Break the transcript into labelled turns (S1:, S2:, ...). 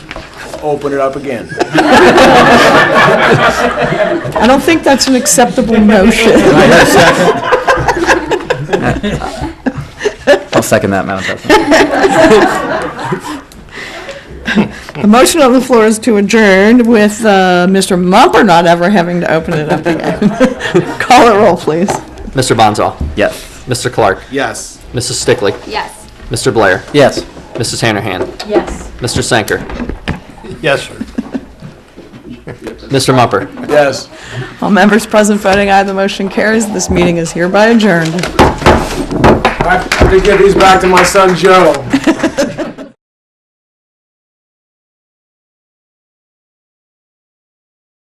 S1: open it up again.
S2: I don't think that's an acceptable motion.
S3: I'll second that, Madam President.
S2: The motion on the floor is to adjourn with uh, Mr. Mumper not ever having to open it up again. Call it roll, please.
S4: Mr. Bonzall,
S3: Yes.
S4: Mr. Clark,
S1: Yes.
S4: Mrs. Stickley,
S5: Yes.
S4: Mr. Blair,
S3: Yes.
S4: Mrs. Hanahan,
S5: Yes.
S4: Mr. Sanker,
S1: Yes, sir.
S4: Mr. Mumper.
S1: Yes.
S2: All members present voting aye, the motion carries. This meeting is hereby adjourned.
S1: I have to give these back to my son Joe.